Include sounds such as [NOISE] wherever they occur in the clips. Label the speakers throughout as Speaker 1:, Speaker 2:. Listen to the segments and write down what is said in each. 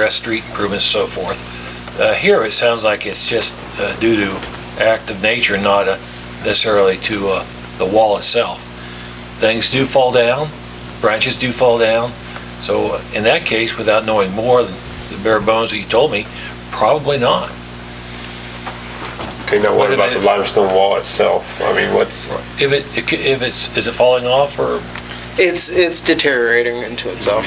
Speaker 1: address street improvements, so forth. Uh, Here, it sounds like it's just uh, due to act of nature, not uh, necessarily to uh, the wall itself. Things do fall down, branches do fall down, so uh, in that case, without knowing more than the bare bones that you told me, probably not.
Speaker 2: Okay, now
Speaker 1: What
Speaker 2: what about
Speaker 1: about-
Speaker 2: the limestone wall itself? I mean, what's,
Speaker 1: If it, if it's, is it falling off, or
Speaker 3: It's it's deteriorating into itself.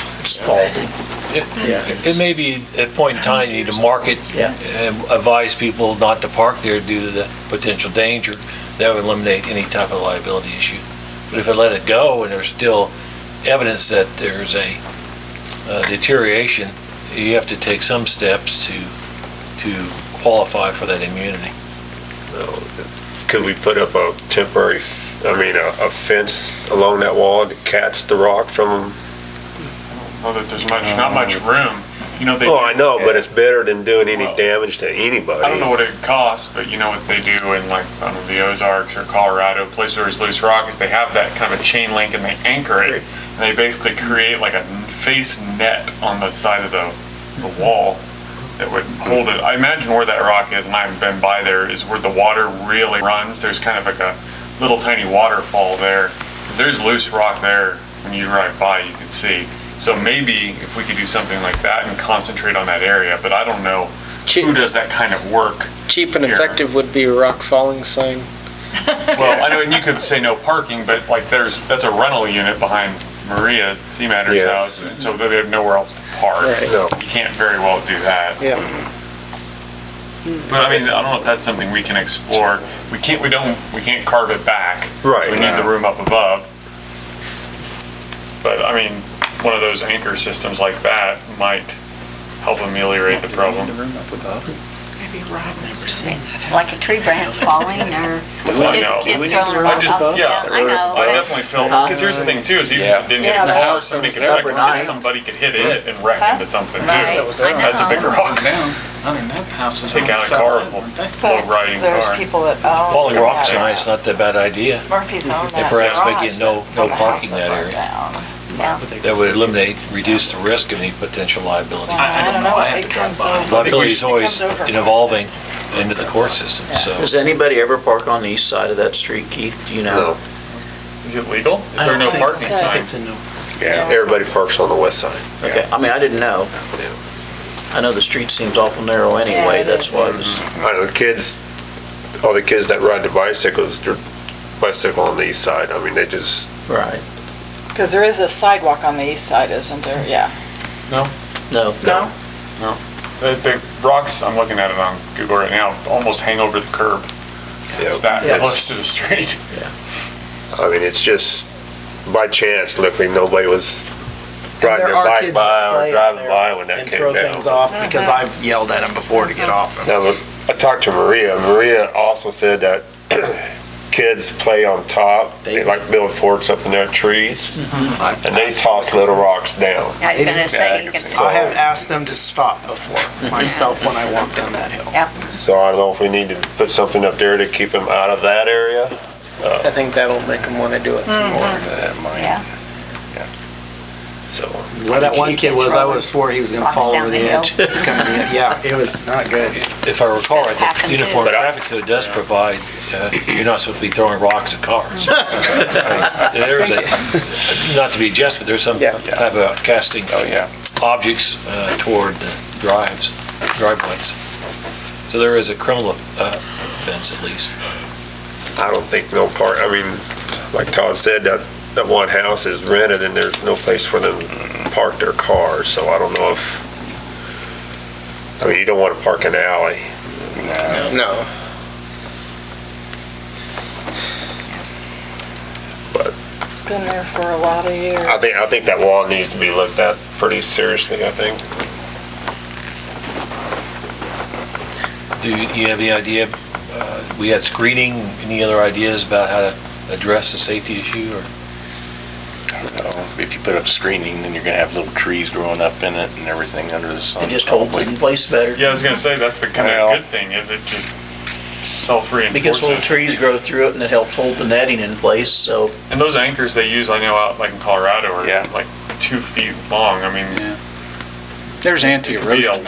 Speaker 1: it may be at a point in time, you need to mark it,
Speaker 4: Yeah.
Speaker 1: and advise people not to park there due to the potential danger. That would eliminate any type of liability issue. But if I let it go and there's still evidence that there's a uh, deterioration, you have to take some steps to, to qualify for that immunity.
Speaker 2: could we put up a temporary, I mean, a, a fence along that wall that cats the rock from?
Speaker 5: Well, that there's much, not much room. You know, they.
Speaker 2: Oh, I know, but it's better than doing any
Speaker 5: Well,
Speaker 2: damage to
Speaker 5: I don't know
Speaker 2: anybody.
Speaker 5: what it costs, but you know what they do in like, I don't know, the Ozarks or Colorado, places where there's loose rock, is they have that kind of a chain link and they anchor it. And they basically create like a face net on the side of the, the wall that would hold it. I imagine where that rock is, and I've been by there, is where the water really runs. There's kind of like a little tiny waterfall there. 'Cause there's loose rock there. When you drive by, you can see. So maybe if we could do something like that and concentrate on that area, but I don't know
Speaker 3: Cheap,
Speaker 5: who does that kind of work.
Speaker 3: cheap and
Speaker 5: Here.
Speaker 3: effective would be a rock falling sign.
Speaker 5: Well, I know, and you could say no parking, but like there's, that's a rental unit behind Maria Seamatter's
Speaker 2: Yes.
Speaker 5: house, and so they have nowhere else to park.
Speaker 3: Right.
Speaker 2: No.
Speaker 5: You can't very well do that.
Speaker 3: Yeah.
Speaker 5: But I mean, I don't know if that's something we can explore. We can't, we don't, we can't carve it back.
Speaker 2: Right.
Speaker 5: We need the room up above. But I mean, one of those anchor systems like that might help ameliorate the problem.
Speaker 6: like a tree branch falling or
Speaker 5: I know.
Speaker 6: kid- kids throwing
Speaker 5: I
Speaker 6: rocks.
Speaker 5: just,
Speaker 6: Oh,
Speaker 5: yeah,
Speaker 6: I know.
Speaker 5: I
Speaker 6: but-
Speaker 5: definitely feel, because here's the thing too, is even if it didn't hit the
Speaker 4: that's-
Speaker 5: house, somebody could,
Speaker 4: that
Speaker 5: like,
Speaker 4: would
Speaker 5: hit
Speaker 4: be-
Speaker 5: somebody could hit it and wreck into something too.
Speaker 6: Right, I know.
Speaker 5: That's a big rock,
Speaker 7: down, I mean, that house is.
Speaker 5: Take
Speaker 7: on the
Speaker 5: out a
Speaker 7: south
Speaker 5: car
Speaker 7: end,
Speaker 5: full-
Speaker 7: weren't they?
Speaker 5: low riding
Speaker 8: There's
Speaker 5: car.
Speaker 8: people that own.
Speaker 1: Falling rock's
Speaker 8: that.
Speaker 1: nice, not a bad idea.
Speaker 8: Murphy's own that.
Speaker 1: perhaps
Speaker 8: garage
Speaker 1: making no-
Speaker 8: that-
Speaker 1: no
Speaker 8: from the house
Speaker 1: parking that
Speaker 8: burned
Speaker 1: area.
Speaker 8: down.
Speaker 6: Yeah.
Speaker 1: That would eliminate, reduce the risk of any potential liability.
Speaker 7: I- I don't know, I have to drive by.
Speaker 1: Liability is
Speaker 8: It
Speaker 1: always
Speaker 8: comes over.
Speaker 1: evolving into the court system, so.
Speaker 4: Does anybody ever park on the east side of that street, Keith? Do you know?
Speaker 2: No,
Speaker 5: Is it legal? Is there no parking sign?
Speaker 2: yeah, everybody parks on the west side.
Speaker 4: Okay, I mean, I didn't know.
Speaker 2: Yeah.
Speaker 4: I know the street seems awful narrow
Speaker 8: Yeah,
Speaker 4: anyway,
Speaker 8: it
Speaker 4: that's
Speaker 8: is.
Speaker 4: why I was,
Speaker 2: I know the kids, all the kids that ride the bicycles, their bicycle on the east side, I mean, they just,
Speaker 4: right.
Speaker 8: Because there is a sidewalk on the east side, isn't there? Yeah.
Speaker 4: No,
Speaker 2: no.
Speaker 5: The, the rocks, I'm looking at it on Google right now, almost hang over the curb.
Speaker 2: yeah,
Speaker 5: It's that
Speaker 2: it's-
Speaker 5: close to the street. [LAUGHS]
Speaker 2: I mean, it's just, by chance, luckily, nobody was riding
Speaker 7: There
Speaker 2: their
Speaker 7: are
Speaker 2: bike
Speaker 7: kids that
Speaker 2: by
Speaker 7: play
Speaker 2: or
Speaker 7: out
Speaker 2: driving
Speaker 7: there
Speaker 2: by when that
Speaker 7: and
Speaker 2: came
Speaker 7: throw
Speaker 2: down.
Speaker 7: things off, because
Speaker 1: Uh-huh.
Speaker 7: I've yelled at them before to get off them.
Speaker 2: Now, look, I talked to Maria. Maria also said that [CLEARS THROAT] kids play on top. They like build forts up in their trees, and they toss little rocks down.
Speaker 6: I was gonna say, you can,
Speaker 2: So-
Speaker 7: I have asked them to stop
Speaker 1: Mm-hmm.
Speaker 7: before, myself, when I walk down that hill.
Speaker 6: yeah,
Speaker 2: So I don't know if we need to put something up there to keep them out of that area.
Speaker 3: I think that'll make them want to do it some more.
Speaker 1: Mm-hmm.
Speaker 3: uh,
Speaker 6: yeah.
Speaker 2: So
Speaker 7: Where that one kid was, I
Speaker 6: Rolling.
Speaker 7: would have swore he was gonna
Speaker 6: Walks
Speaker 7: fall
Speaker 6: down
Speaker 7: over
Speaker 6: the
Speaker 7: the
Speaker 6: hill.
Speaker 7: edge. coming in. Yeah, it was not good.
Speaker 1: If I recall, right, the
Speaker 6: Happened too.
Speaker 1: Uniform
Speaker 2: But I-
Speaker 1: Traffic Code does provide, uh, you're not supposed to be throwing rocks at cars. Right, There's a, not to be just, but there's some
Speaker 3: Yeah.
Speaker 1: type of casting
Speaker 5: Oh, yeah.
Speaker 1: objects uh, toward the drives, driveways. So there is a criminal uh, offense at least.
Speaker 2: I don't think no part. I mean, like Todd said, that that one house is rented, and there's no place for them to park their cars. So I don't know if. I mean, you don't want to park an alley.
Speaker 3: No.
Speaker 8: It's been there for a lot of years.
Speaker 2: I think, I think that wall needs to be looked at pretty seriously, I think.
Speaker 1: Do you you have any idea, uh, we had screening, any other ideas about how to address the safety issue or?
Speaker 9: If you put up screening, then you're gonna have little trees growing up in it and everything under the sun.
Speaker 4: it just holds it in place better.
Speaker 5: Yeah, I was gonna say, that's the kind
Speaker 9: Well-
Speaker 5: of good thing, is it just self-reinforces.
Speaker 4: Because little trees grow through it and it helps hold the netting in place, so
Speaker 5: And those anchors they use, I know out like in Colorado are
Speaker 9: Yeah.
Speaker 5: like two feet long. I mean,
Speaker 10: There's anti-erosion.
Speaker 1: Be a